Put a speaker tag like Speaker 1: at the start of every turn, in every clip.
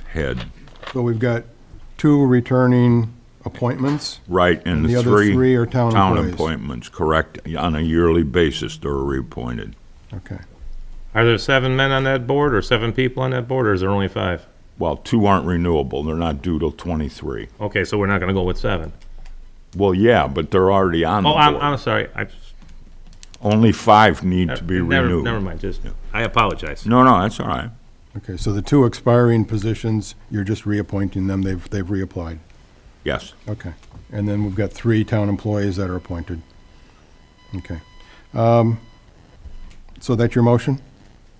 Speaker 1: head,
Speaker 2: So we've got two returning appointments.
Speaker 1: right, and
Speaker 2: And the
Speaker 1: the
Speaker 2: other three
Speaker 1: three
Speaker 2: are town
Speaker 1: town
Speaker 2: employees.
Speaker 1: appointments, correct, on a yearly basis, they're reappointed.
Speaker 2: Okay.
Speaker 3: Are there seven men on that board, or seven people on that board, or is there only five?
Speaker 1: Well, two aren't renewable, they're not due till twenty-three.
Speaker 3: Okay, so we're not gonna go with seven.
Speaker 1: Well, yeah, but they're already on the
Speaker 3: Oh, I'm,
Speaker 1: board.
Speaker 3: I'm sorry, I. uh,
Speaker 1: Only five need to be
Speaker 3: never- Never
Speaker 1: renewed.
Speaker 3: mind, just, I apologize.
Speaker 1: No, no, that's all right.
Speaker 2: Okay, so the two expiring positions, you're just reappointing them, they've, they've reapplied.
Speaker 1: Yes,
Speaker 2: Okay. And then we've got three town employees that are appointed. Okay. Um, So that's your motion?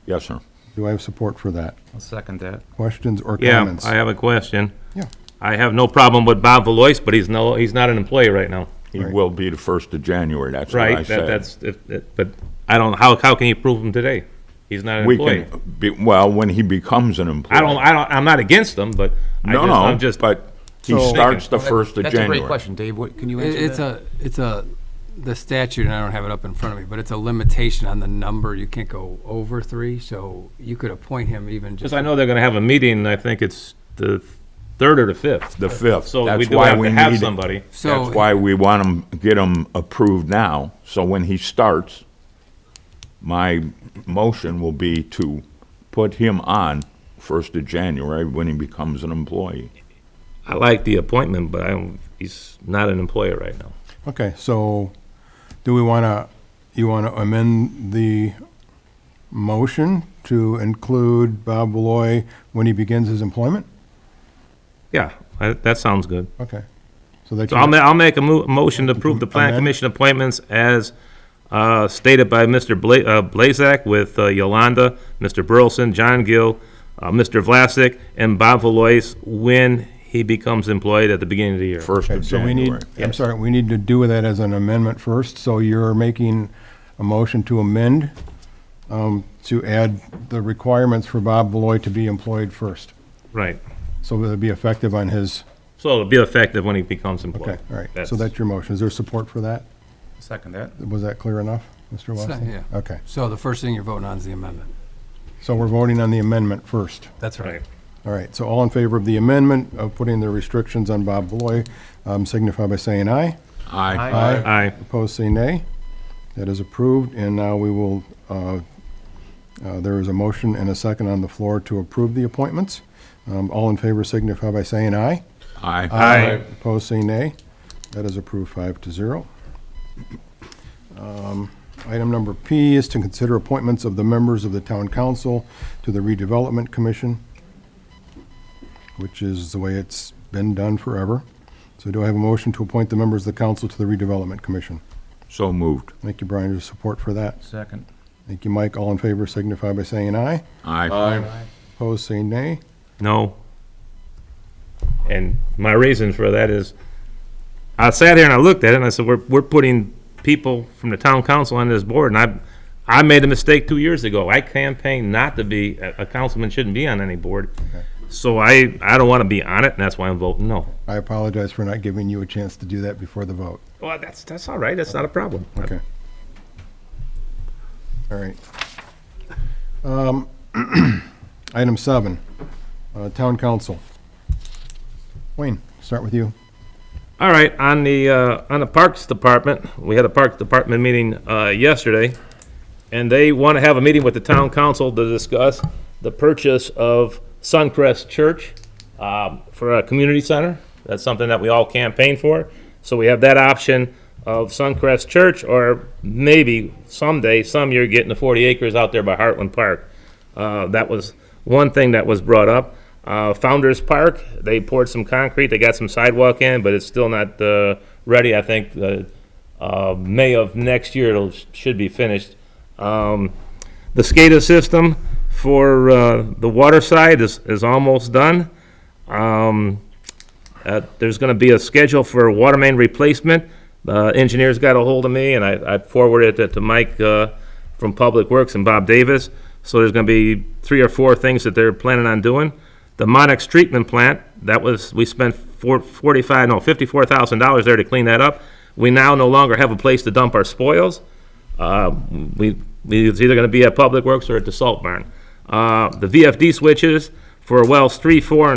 Speaker 1: yes, sir.
Speaker 2: Do I have support for that?
Speaker 4: I'll second that.
Speaker 2: Questions or
Speaker 3: Yeah,
Speaker 2: comments?
Speaker 3: I have a question.
Speaker 2: Yeah.
Speaker 3: I have no problem with Bob Valois, but he's no, he's not an employee right now.
Speaker 1: He will be the first of January, that's what I
Speaker 3: Right, that,
Speaker 1: said.
Speaker 3: that's, if- that- but I don't, how, how can you prove him today? He's not an
Speaker 1: We
Speaker 3: employee.
Speaker 1: can, be- well, when he becomes an employee.
Speaker 3: I don't, I don't, I'm not against him, but I
Speaker 1: No,
Speaker 3: just,
Speaker 1: no,
Speaker 3: I'm just.
Speaker 1: but he
Speaker 2: So-
Speaker 1: starts the first of
Speaker 4: That's a great
Speaker 1: January.
Speaker 4: question, Dave. What, can you
Speaker 5: It-
Speaker 4: answer
Speaker 5: It's
Speaker 4: that?
Speaker 5: a, it's a, the statute, and I don't have it up in front of me, but it's a limitation on the number. You can't go over three, so you could appoint him even just.
Speaker 3: Because I know they're gonna have a meeting, I think it's the third or the fifth.
Speaker 1: The fifth.
Speaker 3: So we
Speaker 1: That's
Speaker 3: do
Speaker 1: why
Speaker 3: have to
Speaker 1: need
Speaker 3: have
Speaker 1: it.
Speaker 3: somebody.
Speaker 5: So-
Speaker 1: That's why we want him, get him approved now, so when he starts, my motion will be to put him on first of January when he becomes an employee.
Speaker 3: I like the appointment, but I don't, he's not an employer right now.
Speaker 2: Okay, so do we want to, you want to amend the motion to include Bob Beloy when he begins his employment?
Speaker 3: Yeah, I- that sounds good.
Speaker 2: Okay. So that
Speaker 3: So I'll,
Speaker 2: you,
Speaker 3: ma- I'll make a mo- motion to approve the plan
Speaker 2: Amend.
Speaker 3: commission appointments as uh, stated by Mr. Bla- uh, Blazak with uh, Yolanda, Mr. Burleson, John Gill, uh, Mr. Vlasic, and Bob Valois when he becomes employed at the beginning of the year.
Speaker 1: First
Speaker 2: okay,
Speaker 1: of
Speaker 2: so we need,
Speaker 1: January.
Speaker 2: I'm sorry, we need to do that as an amendment first. So you're making a motion to amend um, to add the requirements for Bob Beloy to be employed first.
Speaker 3: Right.
Speaker 2: So it'll be effective on his,
Speaker 3: So it'll be effective when he becomes
Speaker 2: okay,
Speaker 3: employed.
Speaker 2: all right. So
Speaker 3: That's-
Speaker 2: that's your motion. Is there support for that?
Speaker 4: Second that.
Speaker 2: Was that clear enough, Mr.
Speaker 5: So,
Speaker 2: Watson?
Speaker 5: yeah.
Speaker 2: Okay.
Speaker 5: So the first thing you're voting on is the amendment.
Speaker 2: So we're voting on the amendment first.
Speaker 5: That's right.
Speaker 3: Right.
Speaker 2: All right, so all in favor of the amendment of putting the restrictions on Bob Beloy, um, signify by saying aye.
Speaker 1: Aye.
Speaker 2: Aye.
Speaker 3: Aye.
Speaker 2: Opposed, say nay. That is approved, and now we will, uh, uh, there is a motion and a second on the floor to approve the appointments. Um, All in favor signify by saying aye.
Speaker 1: Aye.
Speaker 3: Aye.
Speaker 2: Opposed, say nay. That is approved five to zero. Um, Item number P is to consider appointments of the members of the town council to the redevelopment commission, which is the way it's been done forever. So do I have a motion to appoint the members of the council to the redevelopment commission?
Speaker 1: So moved.
Speaker 2: Thank you, Brian, for your support for that.
Speaker 4: Second.
Speaker 2: Thank you, Mike. All in favor signify by saying aye.
Speaker 1: Aye.
Speaker 2: Opposed, say nay.
Speaker 3: No. And my reason for that is, I sat here and I looked at it and I said, we're, we're putting people from the town council on this board, and I, I made a mistake two years ago. I campaigned not to be, a a councilman shouldn't be on any board. So I, I don't want to be on it, and that's why I'm voting no.
Speaker 2: I apologize for not giving you a chance to do that before the vote.
Speaker 3: Well, that's, that's all right, that's not a problem.
Speaker 2: Okay. All right. Um, Item seven, uh, Town Council. Wayne, start with you.
Speaker 3: All right, on the, uh, on the Parks Department, we had a Parks Department meeting, uh, yesterday, and they want to have a meeting with the town council to discuss the purchase of Suncrest Church, um, for a community center. That's something that we all campaign for. So we have that option of Suncrest Church, or maybe someday, some year, getting the forty acres out there by Heartland Park. Uh, that was one thing that was brought up. Uh, Founders Park, they poured some concrete, they got some sidewalk in, but it's still not, uh, ready. I think, uh, uh, May of next year, it'll, should be finished. Um, the SCADA system for, uh, the water side is, is almost done. Um, uh, there's gonna be a schedule for water main replacement. Uh, engineers got a hold of me and I, I forwarded it to Mike, uh, from Public Works and Bob Davis. So there's gonna be three or four things that they're planning on doing. The Monix treatment plant, that was, we spent four, forty-five, no, fifty-four thousand dollars there to clean that up. We now no longer have a place to dump our spoils. Uh, we, we- it's either gonna be at Public Works or at the salt barn. Uh, the VFD switches, for wells three, four, and